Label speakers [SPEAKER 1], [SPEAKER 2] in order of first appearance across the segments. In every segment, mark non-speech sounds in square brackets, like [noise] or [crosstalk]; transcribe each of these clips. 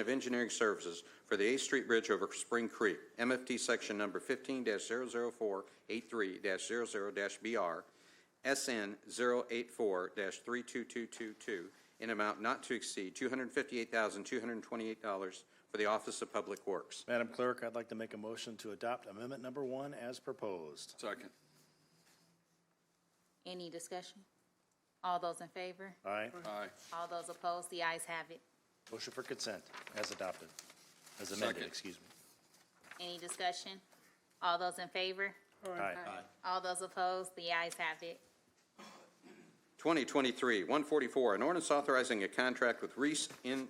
[SPEAKER 1] of Engineering Services for the 8th Street Bridge over Spring Creek, MFT Section Number 15-00483-00-BR, SN 084-32222, in amount not to exceed $258,228 for the Office of Public Works.
[SPEAKER 2] Madam Clerk, I'd like to make a motion to adopt amendment number one as proposed.
[SPEAKER 3] Second.
[SPEAKER 4] Any discussion? All those in favor?
[SPEAKER 2] Aye.
[SPEAKER 3] Aye.
[SPEAKER 4] All those opposed? The ayes have it.
[SPEAKER 2] Motion for consent as adopted, as amended,
[SPEAKER 3] Second.
[SPEAKER 2] excuse me.
[SPEAKER 4] Any discussion? All those in favor?
[SPEAKER 2] Aye.
[SPEAKER 4] All those opposed? The ayes have it.
[SPEAKER 1] 2023-144, an ordinance authorizing a contract with Reese in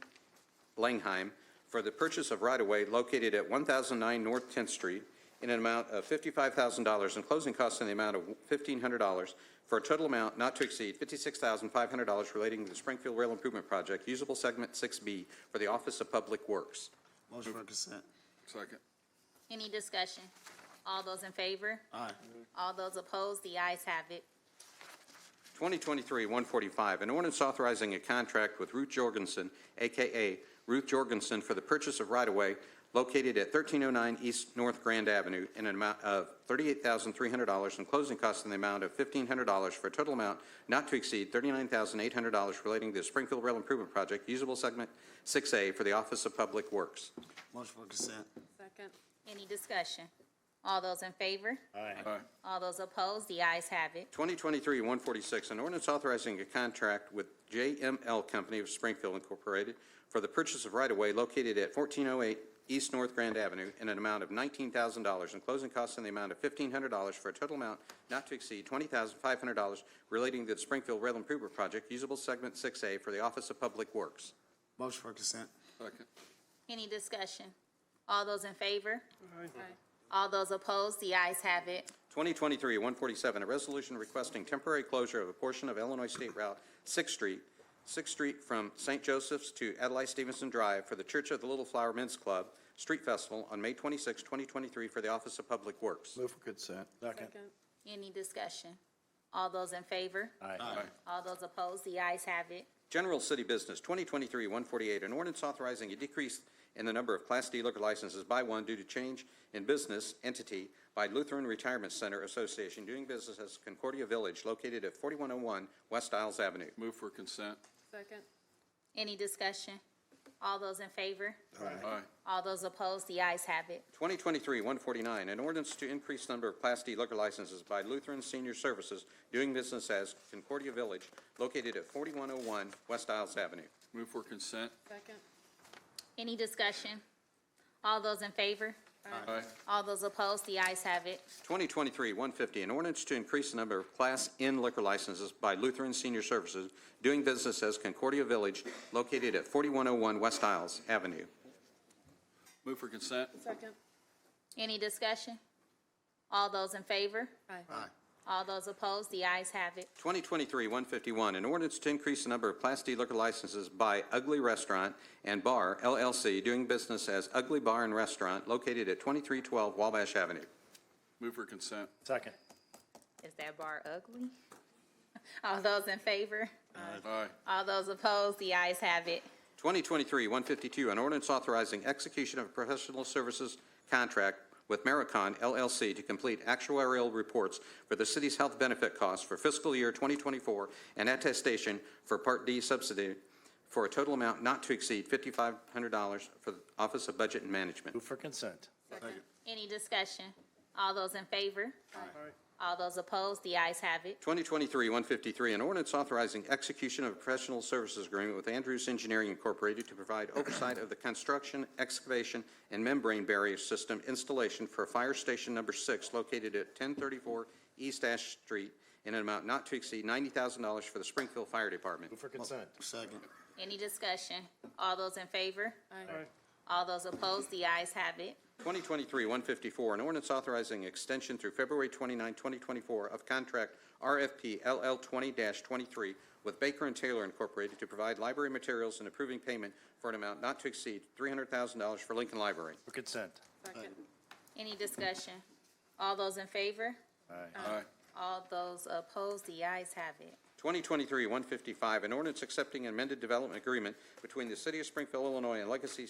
[SPEAKER 1] Langheim for the purchase of right-of-way located at 1009 North 10th Street in an amount of $55,000 and closing costs in the amount of $1,500 for a total amount not to exceed $56,500 relating to the Springfield Rail Improvement Project, usable segment 6B for the Office of Public Works.
[SPEAKER 5] Motion for consent.
[SPEAKER 3] Second.
[SPEAKER 4] Any discussion? All those in favor?
[SPEAKER 5] Aye.
[SPEAKER 4] All those opposed? The ayes have it.
[SPEAKER 1] 2023-145, an ordinance authorizing a contract with Ruth Jorgensen, AKA Ruth Jorgensen, for the purchase of right-of-way located at 1309 East North Grand Avenue in an amount of $38,300 and closing costs in the amount of $1,500 for a total amount not to exceed $39,800 relating to the Springfield Rail Improvement Project, usable segment 6A for the Office of Public Works.
[SPEAKER 5] Motion for consent.
[SPEAKER 6] Second.
[SPEAKER 4] Any discussion? All those in favor?
[SPEAKER 3] Aye.
[SPEAKER 4] All those opposed? The ayes have it.
[SPEAKER 1] 2023-146, an ordinance authorizing a contract with JML Company of Springfield Incorporated for the purchase of right-of-way located at 1408 East North Grand Avenue in an amount of $19,000 and closing costs in the amount of $1,500 for a total amount not to exceed $20,500 relating to the Springfield Rail Improvement Project, usable segment 6A for the Office of Public Works.
[SPEAKER 5] Motion for consent.
[SPEAKER 3] Second.
[SPEAKER 4] Any discussion? All those in favor? All those opposed? The ayes have it.
[SPEAKER 1] 2023-147, a resolution requesting temporary closure of a portion of Illinois State Route 6th Street, 6th Street from St. Joseph's to Adlai Stevenson Drive for the Church of the Little Flower Men's Club Street Festival on May 26, 2023, for the Office of Public Works.
[SPEAKER 5] Move for consent.
[SPEAKER 2] Second.
[SPEAKER 4] Any discussion? All those in favor?
[SPEAKER 2] Aye.
[SPEAKER 4] All those opposed? The ayes have it.
[SPEAKER 1] General City Business, 2023-148, an ordinance authorizing a decrease in the number of Class D liquor licenses by one due to change in business entity by Lutheran Retirement Center Association doing business as Concordia Village located at 4101 West Isles Avenue.
[SPEAKER 3] Move for consent.
[SPEAKER 6] Second.
[SPEAKER 4] Any discussion? All those in favor?
[SPEAKER 3] Aye.
[SPEAKER 4] All those opposed? The ayes have it.
[SPEAKER 1] 2023-149, an ordinance to increase number of Class D liquor licenses by Lutheran Senior Services doing business as Concordia Village located at 4101 West Isles Avenue.
[SPEAKER 3] Move for consent.
[SPEAKER 6] Second.
[SPEAKER 4] Any discussion? All those in favor?
[SPEAKER 3] Aye.
[SPEAKER 4] All those opposed? The ayes have it.
[SPEAKER 1] 2023-150, an ordinance to increase the number of Class N liquor licenses by Lutheran Senior Services doing business as Concordia Village located at 4101 West Isles Avenue.
[SPEAKER 3] Move for consent.
[SPEAKER 6] Second.
[SPEAKER 4] Any discussion? All those in favor?
[SPEAKER 6] Aye.
[SPEAKER 4] All those opposed? The ayes have it.
[SPEAKER 1] 2023-151, an ordinance to increase the number of Class D liquor licenses by Ugly Restaurant and Bar LLC doing business as Ugly Bar and Restaurant located at 2312 Wabash Avenue.
[SPEAKER 3] Move for consent.
[SPEAKER 2] Second.
[SPEAKER 4] Is that bar ugly? [laughs] All those in favor?
[SPEAKER 3] Aye.
[SPEAKER 4] All those opposed? The ayes have it.
[SPEAKER 1] 2023-152, an ordinance authorizing execution of a professional services contract with Maricon LLC to complete actuarial reports for the city's health benefit costs for fiscal year 2024 and attestation for Part D subsidy for a total amount not to exceed $5,500 for the Office of Budget and Management.
[SPEAKER 2] Move for consent.
[SPEAKER 6] Second.
[SPEAKER 4] Any discussion? All those in favor? All those opposed? The ayes have it.
[SPEAKER 1] 2023-153, an ordinance authorizing execution of a professional services agreement with Andrews Engineering Incorporated to provide oversight of the construction, excavation, and membrane barrier system installation for Fire Station Number 6 located at 1034 East Ash Street in an amount not to exceed $90,000 for the Springfield Fire Department.
[SPEAKER 2] Move for consent.
[SPEAKER 5] Second.
[SPEAKER 4] Any discussion? All those in favor?
[SPEAKER 6] Aye.
[SPEAKER 4] All those opposed? The ayes have it.
[SPEAKER 1] 2023-154, an ordinance authorizing extension through February 29, 2024 of contract RFP LL 20-23 with Baker and Taylor Incorporated to provide library materials and approving payment for an amount not to exceed $300,000 for Lincoln Library.
[SPEAKER 2] For consent.
[SPEAKER 6] Second.
[SPEAKER 4] Any discussion? All those in favor?
[SPEAKER 2] Aye.
[SPEAKER 3] Aye.
[SPEAKER 4] All those opposed? The ayes have it.
[SPEAKER 1] 2023-155, an ordinance accepting an amended development agreement between the City of Springfield, Illinois and Legacy